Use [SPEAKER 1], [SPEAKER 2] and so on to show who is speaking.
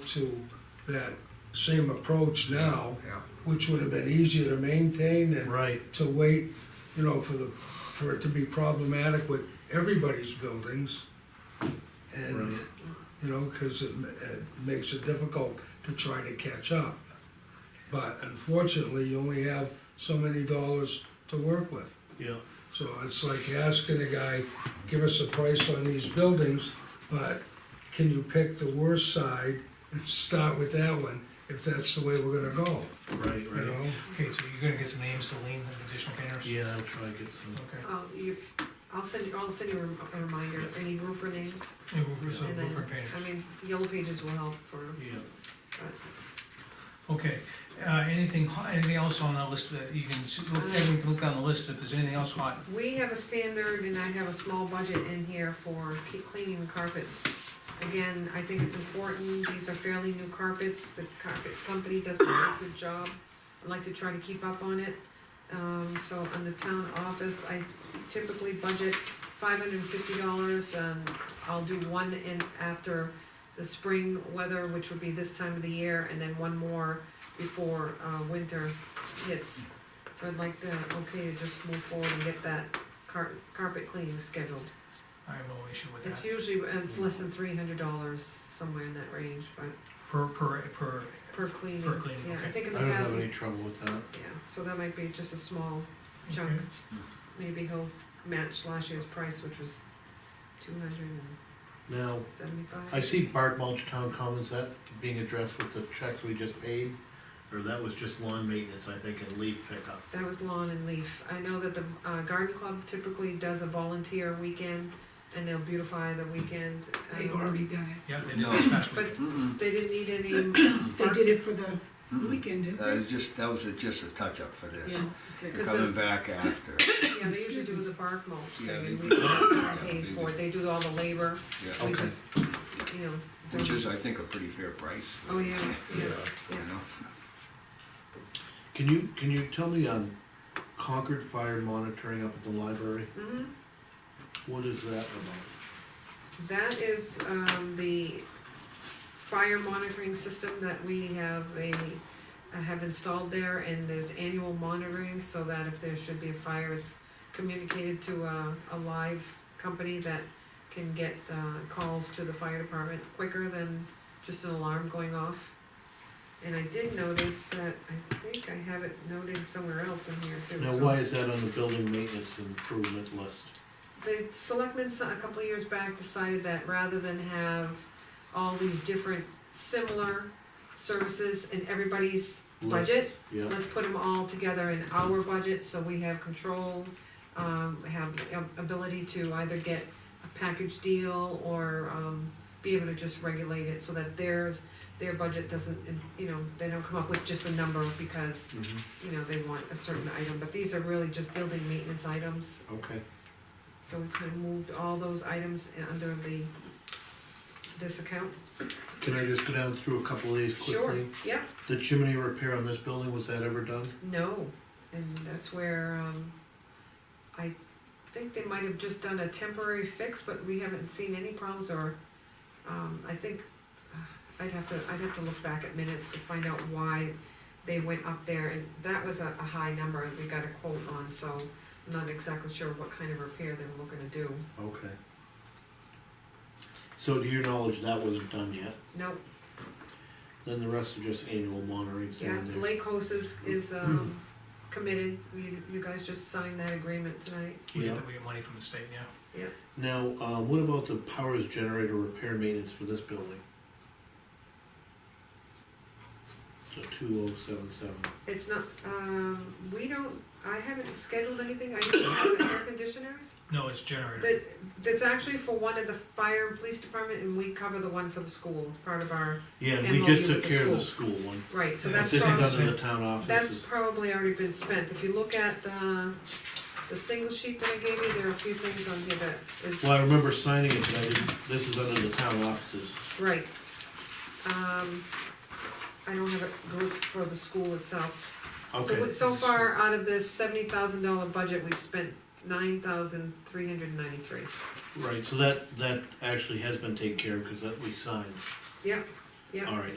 [SPEAKER 1] to that same approach now,
[SPEAKER 2] Yeah,
[SPEAKER 1] which would have been easier to maintain than
[SPEAKER 2] right,
[SPEAKER 1] to wait, you know, for the, for it to be problematic with everybody's buildings. And,
[SPEAKER 2] Right.
[SPEAKER 1] you know, cause it, ma- it makes it difficult to try to catch up. But unfortunately, you only have so many dollars to work with.
[SPEAKER 2] yeah,
[SPEAKER 1] So it's like asking a guy, give us a price on these buildings, but can you pick the worst side and start with that one, if that's the way we're gonna go,
[SPEAKER 2] right,
[SPEAKER 1] you
[SPEAKER 2] right.
[SPEAKER 1] know?
[SPEAKER 3] Okay, so you're gonna get some names to lean, and additional painters?
[SPEAKER 2] Yeah, I'll try and get some,
[SPEAKER 3] Okay.
[SPEAKER 4] Oh, you, I'll send you, I'll send you a rem- a reminder, any roofer names,
[SPEAKER 3] Yeah, roofers
[SPEAKER 4] and
[SPEAKER 3] and
[SPEAKER 4] then,
[SPEAKER 3] roofer painters.
[SPEAKER 4] I mean, yellow pages will help for,
[SPEAKER 2] yeah.
[SPEAKER 4] but,
[SPEAKER 3] Okay, uh, anything, hot- anything else on that list that you can, s- look- everyone can look down the list if there's anything else hot?
[SPEAKER 4] we have a standard, and I have a small budget in here for ke- cleaning the carpets. Again, I think it's important, these are fairly new carpets, the carpet company does a very good job, I'd like to try to keep up on it. Um, so on the town office, I typically budget five hundred and fifty dollars, um, I'll do one in after the spring weather, which would be this time of the year, and then one more before, uh, winter hits. So I'd like the, okay, to just move forward and get that car- carpet cleaning scheduled.
[SPEAKER 3] I have no issue with
[SPEAKER 4] It's
[SPEAKER 3] that,
[SPEAKER 4] usually, it's less than three hundred dollars, somewhere in that range, but
[SPEAKER 3] per, per, per,
[SPEAKER 4] per cleaning.
[SPEAKER 3] Per cleaning,
[SPEAKER 4] Yeah, I
[SPEAKER 3] okay.
[SPEAKER 4] think in
[SPEAKER 2] I
[SPEAKER 4] the
[SPEAKER 2] don't have
[SPEAKER 4] past,
[SPEAKER 2] any trouble with that.
[SPEAKER 4] yeah, so that might be just a small chunk.
[SPEAKER 3] Okay.
[SPEAKER 4] Maybe he'll match last year's price, which was two hundred and
[SPEAKER 2] Now, I
[SPEAKER 4] seventy-five.
[SPEAKER 2] see bark mulch town commons, that being addressed with the checks we just paid, or that was just lawn maintenance, I think, and leaf pickup.
[SPEAKER 4] That was lawn and leaf. I know that the uh, garden club typically does a volunteer weekend, and they'll beautify the weekend.
[SPEAKER 5] They've
[SPEAKER 4] um,
[SPEAKER 5] already done
[SPEAKER 3] yeah, they did this past
[SPEAKER 4] But
[SPEAKER 3] weekend.
[SPEAKER 4] they didn't need any.
[SPEAKER 5] it. They did it for the weekend, didn't
[SPEAKER 6] That
[SPEAKER 5] they?
[SPEAKER 6] was Uh, just, that was a- just a touch-up for this,
[SPEAKER 4] Mm-hmm. Yeah,
[SPEAKER 5] Okay.
[SPEAKER 6] We're
[SPEAKER 4] Because
[SPEAKER 6] coming
[SPEAKER 4] the-
[SPEAKER 6] back after,
[SPEAKER 4] yeah, they usually do the bark mulch thing,
[SPEAKER 6] Yeah, they
[SPEAKER 4] and we
[SPEAKER 6] do.
[SPEAKER 4] pay for it. They do all the labor.
[SPEAKER 6] yeah,
[SPEAKER 4] We
[SPEAKER 2] Okay.
[SPEAKER 4] just, you know. do-
[SPEAKER 6] which is, I think, a pretty fair price.
[SPEAKER 4] Oh, yeah, yeah,
[SPEAKER 6] You
[SPEAKER 4] yeah.
[SPEAKER 6] know,
[SPEAKER 2] Can you, can you tell me on Concord Fire Monitoring up at the library,
[SPEAKER 4] Mhm.
[SPEAKER 2] what is that about?
[SPEAKER 4] That is, um, the fire monitoring system that we have a, uh, have installed there, and there's annual monitoring, so that if there should be a fire, it's communicated to a, a live company that can get, uh, calls to the fire department quicker than just an alarm going off. And I did notice that, I think I have it noted somewhere else in here too.
[SPEAKER 2] Now,
[SPEAKER 4] so-
[SPEAKER 2] why is that on the building maintenance improvement list?
[SPEAKER 4] the selectmen s- a couple of years back decided that rather than have all these different similar services in everybody's
[SPEAKER 2] List,
[SPEAKER 4] budget,
[SPEAKER 2] Yeah,
[SPEAKER 4] let's put them all together in our budget, so we have control, um, have a- ability to either get a package deal or, um, be able to just regulate it so that theirs, their budget doesn't, you know, they don't come up with just a number because,
[SPEAKER 2] mhm,
[SPEAKER 4] you know, they want a certain item, but these are really just building maintenance items,
[SPEAKER 2] okay.
[SPEAKER 4] so we kind of moved all those items in- under the, this account?
[SPEAKER 2] Can I just go down through a couple of these quickly?
[SPEAKER 4] Sure, yeah,
[SPEAKER 2] The chimney repair on this building, was that ever done?
[SPEAKER 4] no, and that's where, um, I think they might have just done a temporary fix, but we haven't seen any problems or, um, I think, uh, I'd have to, I'd have to look back at minutes to find out why they went up there, and that was a, a high number that we got a quote on, so I'm not exactly sure what kind of repair they were looking to do.
[SPEAKER 2] Okay. So to your knowledge, that wasn't done yet,
[SPEAKER 4] No,
[SPEAKER 2] then the rest are just annual monitoring, so
[SPEAKER 4] Yeah,
[SPEAKER 2] in there.
[SPEAKER 4] Lake Host is, is, um, committed, you, you guys just signed that agreement tonight.
[SPEAKER 3] We
[SPEAKER 2] Yeah.
[SPEAKER 3] get, we get money from the state, yeah.
[SPEAKER 2] Now, uh, what about the powers generator repair maintenance for this building? So two oh seven seven,
[SPEAKER 4] It's not, um, we don't, I haven't scheduled anything, I usually have the air conditioners.
[SPEAKER 3] No, it's generator.
[SPEAKER 4] That, that's actually for one of the fire and police department, and we cover the one for the school, it's part of our,
[SPEAKER 2] yeah,
[SPEAKER 4] And
[SPEAKER 2] we
[SPEAKER 4] we'll
[SPEAKER 2] just
[SPEAKER 4] give it
[SPEAKER 2] took
[SPEAKER 4] to
[SPEAKER 2] care of the school one,
[SPEAKER 4] right, so
[SPEAKER 3] Yeah,
[SPEAKER 4] that's
[SPEAKER 2] this is
[SPEAKER 4] probably,
[SPEAKER 2] under the town office.
[SPEAKER 4] that's probably already been spent. If you look at the, the single sheet that I gave you, there are a few things on here that is
[SPEAKER 2] Well, I remember signing it, but I didn't, this is under the town offices,
[SPEAKER 4] Right. Um, I don't have a group for the school itself. So,
[SPEAKER 2] okay,
[SPEAKER 4] what- so far, out of this seventy thousand dollar budget, we've spent nine thousand three hundred ninety-three.
[SPEAKER 2] right, so that, that actually has been taken care of, cause that we signed.
[SPEAKER 4] Yep, Yep.
[SPEAKER 2] All right,